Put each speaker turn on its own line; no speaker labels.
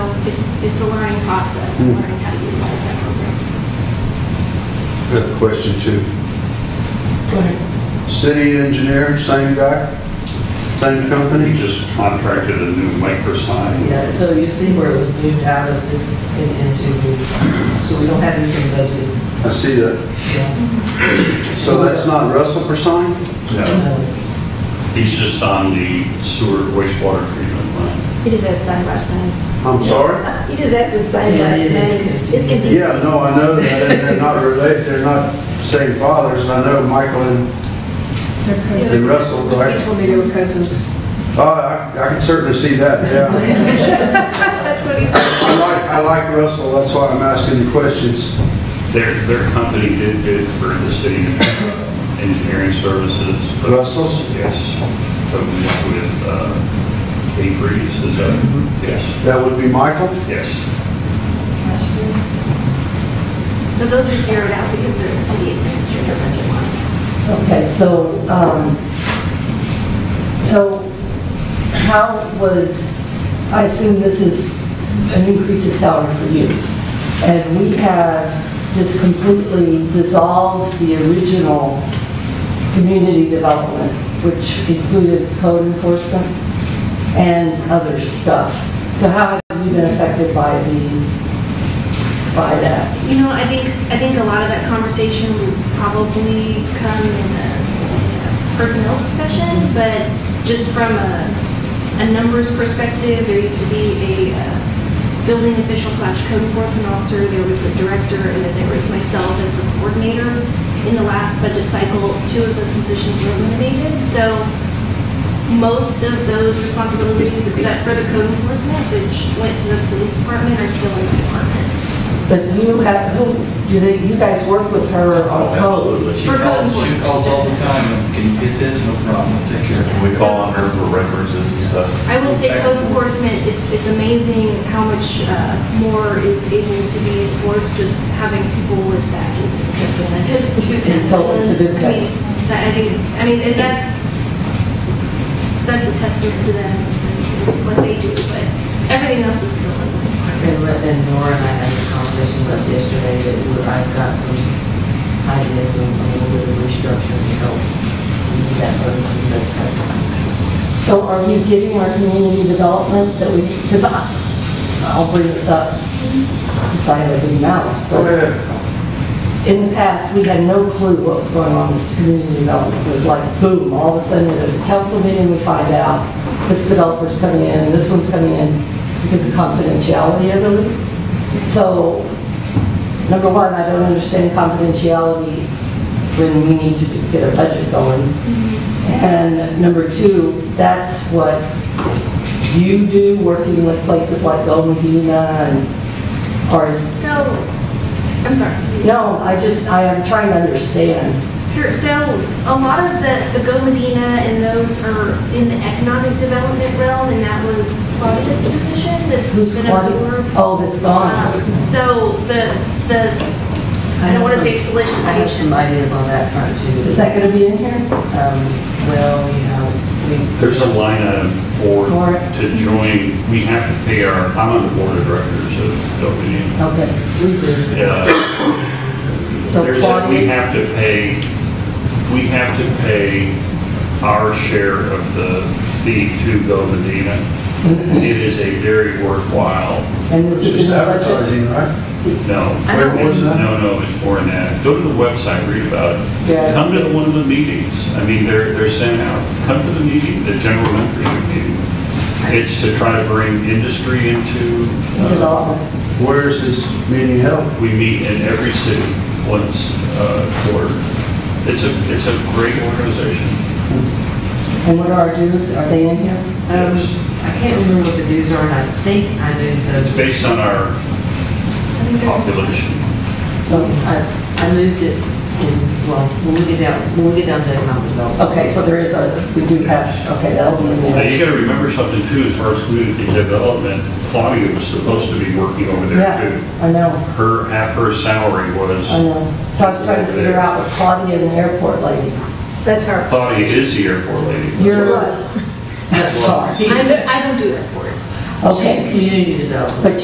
it's, it's a learning process and learning how to utilize that program.
I got a question too.
Go ahead.
City engineer, same guy, same
We
company?
just contracted a new maker sign.
Yeah, so you see where it was moved out of this and into, the- so we don't have anything budgeted.
I see that.
Yeah.
So that's not Russell Persine?
No,
No.
He's just on the sewer wastewater treatment line.
He just has the same last name.
I'm sorry?
He just has the same
Yeah,
last
it is
name. It's
confusing.
confusing.
Yeah, no, I know that, and they're not related, they're not same fathers. I know Michael and, and Russell,
He
right?
told me they were cousins.
Oh, I, I can certainly see that, yeah.
That's what he said.
I like, I like Russell, that's why I'm asking the questions.
Their, their company did bid for the city engineering services. but-
Russell's?
Yes. So we went with uh, Kate Reeves, is that?
Mm-hmm.
Yes.
That would be Michael?
Yes.
So those are zeroed out because they're in the city administrator budget line.
Okay, so, um, so how was, I assume this is an increase in salary for you. And we have just completely dissolved the original community development, which included code enforcement and other stuff. So how have you been affected by the, by that?
You know, I think, I think a lot of that conversation would probably come in a personnel discussion, but just from a, a numbers perspective, there used to be a uh, building official slash code enforcement officer, there was a director, and then there was myself as the coordinator. In the last budget cycle, two of those positions were eliminated, so most of those responsibilities, except for the code enforcement, which went to the police department, are still in the department.
But you have, who, do they, you guys work with her on code?
Absolutely.
For
She
code
calls, she
enforcement.
calls all the time, and can you get this? No problem, I'll take care of it.
We call on
her for references and stuff.
I would say code enforcement, it's, it's amazing how much uh, more is able to be enforced just having people with badges and things.
And so it's a good
I mean, that- I think, I mean, and that, that's a testament to them, and what they do, but everything else is still.
And let- and Nora and I had this conversation about yesterday that we- I've got some ideas on a little bit of restructuring to help ease that burden, but that's,
So are we giving our community development that we, because I, I'll bring this up, decide I didn't know.
Go
but
ahead.
In the past, we had no clue what was going on with community development. It was like boom, all of a sudden there's a council meeting, we find out this developer's coming in, this one's coming in because of confidentiality of them. So, number one, I don't understand confidentiality when we need to get a budget going. And number two, that's what you do, working with places like Golden Medina and, or is,
So, I'm sorry.
no, I just, I am trying to understand.
Sure, so a lot of the, the Go Medina and those are in the economic development realm, and that was Claudia's position that's
Who's
been
Claudia?
absorbed.
Oh, that's gone.
Um, So the, the, s- I don't want to say
I have some
solicitation.
ideas on that front too.
Is that gonna be in here?
Um, well, you know, we.
There's a line item for,
For-
to join, we have to pay our, I'm on the board of directors of Uh, WU.
Okay, we do.
Yeah.
So
There's a- We
Claudia-
have to pay, we have to pay our share of the fee to Go Medina.
Mm-hmm.
It is a very worthwhile,
And this
It's
is in
just
the budget?
advertising, right?
no.
I don't-
It's- No, no, it's more than that. Go to the website, read about
Yeah.
it. Come to one of the meetings. I mean, they're, they're sent out. Come to the meeting, the general membership meeting. It's to try to bring industry into, uh,
Development.
Where is this meeting held?
we meet in every city once uh, quarter. It's a, it's a great organization.
And what are our dues? Are they in here?
Um, I can't remember what the dues are, and I think I moved
It's
those,
based on our population.
so I, I moved it in, well, when we get down, when we get down to economic development.
Okay, so there is a, we do have, okay, that'll be in
Now,
there.
you gotta remember something too, as far as community development, Claudia was supposed to be working over there too.
Yeah, I know.
Her, half her salary was,
I know. So I was trying to figure out with Claudia and the airport lady.
That's her.
Claudia is the airport lady.
You're,
was.
sorry.
I'm- I don't do that for it.
Okay.
She's community development.
But